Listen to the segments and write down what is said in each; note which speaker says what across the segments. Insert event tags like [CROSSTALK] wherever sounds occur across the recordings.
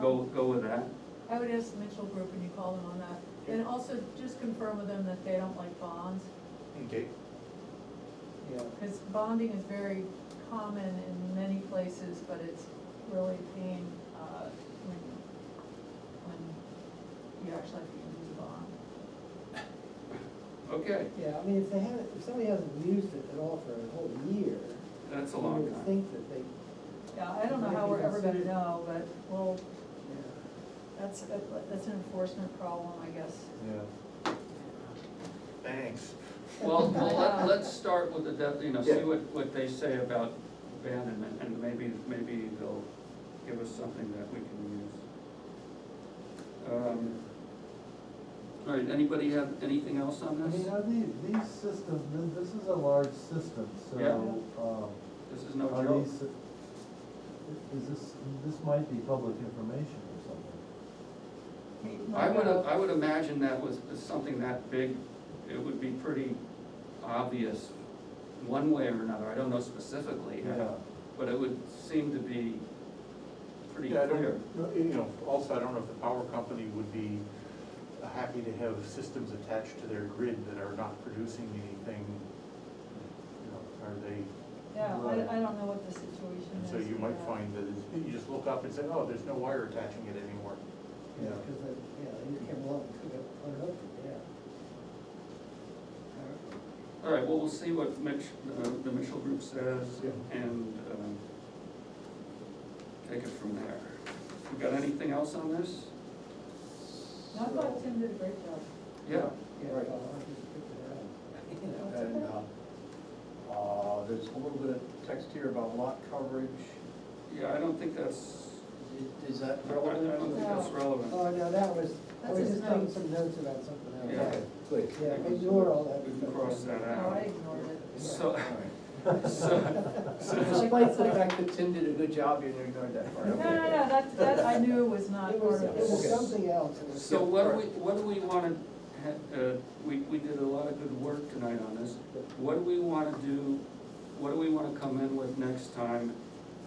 Speaker 1: go, go with that.
Speaker 2: I would ask the Mitchell Group when you call them on that, and also just confirm with them that they don't like bonds,
Speaker 3: Okay.
Speaker 4: Yeah,
Speaker 2: because bonding is very common in many places, but it's really a pain, uh, when, when you actually have to use a bond.
Speaker 1: Okay,
Speaker 4: yeah, I mean, if they haven't, if somebody hasn't used it at all for a whole year,
Speaker 1: that's a
Speaker 4: you
Speaker 1: long
Speaker 4: would
Speaker 1: time.
Speaker 4: think that they,
Speaker 2: Yeah, I don't know how we're ever gonna know, but, well,
Speaker 4: yeah,
Speaker 2: that's, that's an enforcement problem, I guess.
Speaker 3: Thanks.
Speaker 1: Well, well, let, let's start with the, def- you know, see
Speaker 3: Yeah.
Speaker 1: what, what they say about abandonment, and maybe, maybe they'll give us something that we can use. Um, All right, anybody have anything else
Speaker 5: I
Speaker 1: on this?
Speaker 5: mean, I mean, these systems, th- this is a large system,
Speaker 1: Yeah.
Speaker 5: so, um,
Speaker 1: This is no
Speaker 5: are
Speaker 1: joke.
Speaker 5: these, is this, this might be public information or something.
Speaker 1: I would, I would imagine that was something that big, it would be pretty obvious, one way or another, I don't know specifically how, but it would seem to be pretty
Speaker 3: Yeah, I don't,
Speaker 1: clear.
Speaker 3: no, you know, also, I don't know if the power company would be happy to have systems attached to their grid that are not producing anything. You know, Are they,
Speaker 2: Yeah, I, I don't know what the situation
Speaker 3: and
Speaker 2: is.
Speaker 3: so you might
Speaker 2: yeah.
Speaker 3: find that it's, you just look up and say, oh, there's no wire attaching it anymore.
Speaker 5: Yeah.
Speaker 4: because that, yeah, you can't blow and cook it, put it up, yeah.
Speaker 1: All right, well, we'll see what Mitch, uh, the Mitchell Group says and, um, take it from there. We got anything else on this?
Speaker 2: No, I thought Tim did a great job.
Speaker 1: Yeah,
Speaker 4: Yeah, well, I just picked it up.
Speaker 6: And, uh, uh, there's a little bit of text here about lot coverage.
Speaker 1: yeah, I don't think that's,
Speaker 6: I- Is that
Speaker 1: I don't
Speaker 6: relevant?
Speaker 1: think that's relevant.
Speaker 4: Oh, no, that was, I
Speaker 2: That's
Speaker 4: was
Speaker 2: his
Speaker 4: just taking
Speaker 2: notes.
Speaker 4: some notes about something else.
Speaker 1: Yeah.
Speaker 6: Okay, Good.
Speaker 4: Yeah, ignore all that.
Speaker 1: We can cross that
Speaker 2: No, I
Speaker 1: out.
Speaker 2: ignored it.
Speaker 1: So,
Speaker 6: All right.
Speaker 1: so, so,
Speaker 6: Despite the fact that Tim did a good job, you ignored that part.
Speaker 2: No, no, no, that, that I knew was not
Speaker 4: [LAUGHS] It
Speaker 2: part
Speaker 4: was,
Speaker 2: of
Speaker 4: it
Speaker 2: this.
Speaker 4: was something else. It was-
Speaker 1: so what do we, what do we wanna, ha- uh, we, we did a lot of good work tonight on this. What do we wanna do, what do we wanna come in with next time,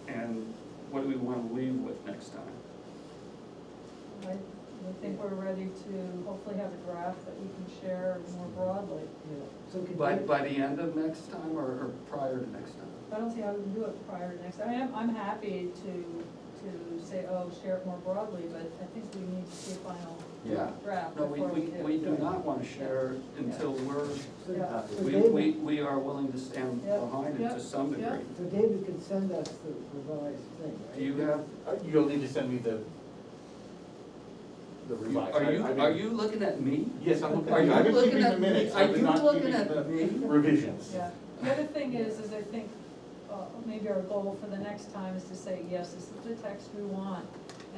Speaker 1: and what do we wanna leave with next time?
Speaker 2: I I think we're ready to hopefully have a draft that we can share more broadly.
Speaker 4: Yeah, So could
Speaker 1: By,
Speaker 4: you-
Speaker 1: by the end of next time, or, or prior to next time?
Speaker 2: I don't see how we can do it prior to next, I am, I'm happy to, to say, oh, share it more broadly, but I think we need to see a final
Speaker 1: Yeah.
Speaker 2: draft
Speaker 1: No,
Speaker 2: before
Speaker 1: we,
Speaker 2: we
Speaker 1: we,
Speaker 2: do.
Speaker 1: we do not wanna share until we're,
Speaker 4: so-
Speaker 2: Yeah.
Speaker 4: so
Speaker 1: uh, we,
Speaker 4: David-
Speaker 1: we, we are willing to stand
Speaker 2: Yeah,
Speaker 1: behind it
Speaker 2: yeah,
Speaker 1: to some
Speaker 2: yeah.
Speaker 1: degree.
Speaker 4: So David could send us the revised thing, right?
Speaker 1: Do you have,
Speaker 3: Uh, You'll need to send me the, the revised.
Speaker 1: are
Speaker 3: I-
Speaker 1: you,
Speaker 3: I mean-
Speaker 1: are you looking at me?
Speaker 3: Yes, I'm looking.
Speaker 1: Are
Speaker 3: at
Speaker 1: you
Speaker 3: I've been
Speaker 1: looking
Speaker 3: keeping the
Speaker 1: at me?
Speaker 3: minutes,
Speaker 1: Are
Speaker 3: I've been
Speaker 1: you
Speaker 3: not
Speaker 1: looking
Speaker 3: keeping
Speaker 1: at
Speaker 3: the
Speaker 1: me?
Speaker 3: Revisions.
Speaker 2: Yeah, the other thing is, is I think, uh, maybe our goal for the next time is to say, yes, this is the text we want.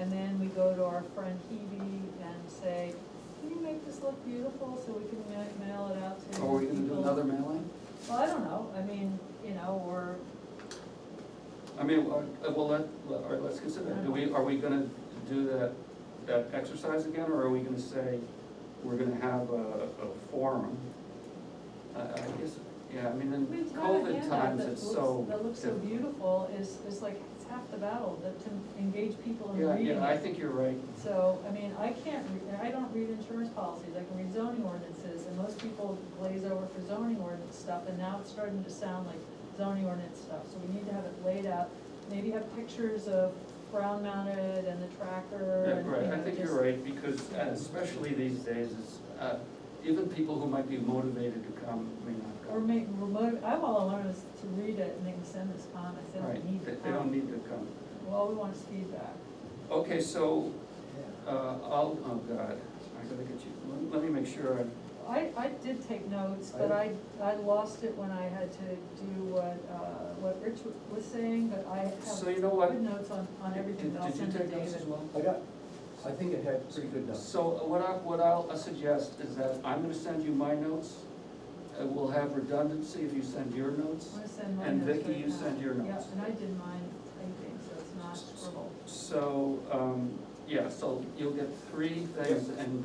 Speaker 2: And then we go to our friend Hebe and say, can you make this look beautiful so we can ma- mail it out to
Speaker 1: Are we gonna do
Speaker 2: people?"
Speaker 1: another mailing?
Speaker 2: Well, I don't know, I mean, you know, or,
Speaker 1: I mean, uh, well, let, let- all right, let's consider, do we, are we gonna do that, that exercise again, or are we gonna say, we're gonna have a, a forum? I, I guess, yeah, I mean, in
Speaker 2: we have a
Speaker 1: COVID
Speaker 2: handout
Speaker 1: times,
Speaker 2: that
Speaker 1: it's so
Speaker 2: looks, that looks so
Speaker 1: different.
Speaker 2: beautiful, is, is like, it's half the battle, that to engage people in
Speaker 1: Yeah,
Speaker 2: reading.
Speaker 1: yeah, I
Speaker 2: it.
Speaker 1: think you're right,
Speaker 2: So, I mean, I can't, re- I don't read insurance policies, I can read zoning ordinances, and most people glaze over for zoning ordinance stuff, and now it's starting to sound like zoning ordinance stuff, so we need to have it laid out. Maybe have pictures of ground mounted and the tracker
Speaker 1: Yeah,
Speaker 2: and, you
Speaker 1: right, I
Speaker 2: know,
Speaker 1: think you're
Speaker 2: just-
Speaker 1: right, because uh, especially these days, it's, uh, even people who might be motivated to come may not
Speaker 2: Or
Speaker 1: come.
Speaker 2: make, remote, I, all I want is to read it and they can send us comments, they
Speaker 1: Right,
Speaker 2: don't need
Speaker 1: they-
Speaker 2: to
Speaker 1: they don't need to come.
Speaker 2: Well, we want is feedback.
Speaker 1: Okay, so
Speaker 4: Yeah.
Speaker 1: Uh, I'll, oh God, I gotta get you, let- let me make sure I,
Speaker 2: I, I did take notes, but I, I lost it when I had to do what, uh, what Rich was saying, but I
Speaker 1: so
Speaker 2: have
Speaker 1: you know what?
Speaker 2: good notes on, on everything
Speaker 1: Did
Speaker 2: that I'll
Speaker 1: did you
Speaker 2: send to
Speaker 1: take notes as
Speaker 2: David.
Speaker 1: well?
Speaker 6: I got, I think it had pretty good numbers.
Speaker 1: So uh, what I, what I'll suggest is that I'm gonna send you my notes, and we'll have redundancy if you send your notes.
Speaker 2: I'm gonna send mine
Speaker 1: And
Speaker 2: notes
Speaker 1: Vicky,
Speaker 2: right
Speaker 1: you
Speaker 2: now.
Speaker 1: send your notes.
Speaker 2: Yeah, and I did mine typing, so it's not scribble.
Speaker 1: So, um, yeah, so you'll get three things and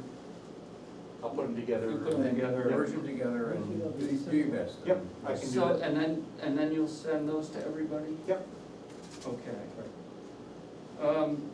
Speaker 3: I'll put them together.
Speaker 1: We put 'em together.
Speaker 6: Merge them together and do do your best.
Speaker 3: Yep, I can do
Speaker 1: so,
Speaker 3: that.
Speaker 1: and then, and then you'll send those to everybody?
Speaker 3: Yep.
Speaker 1: Okay. Um,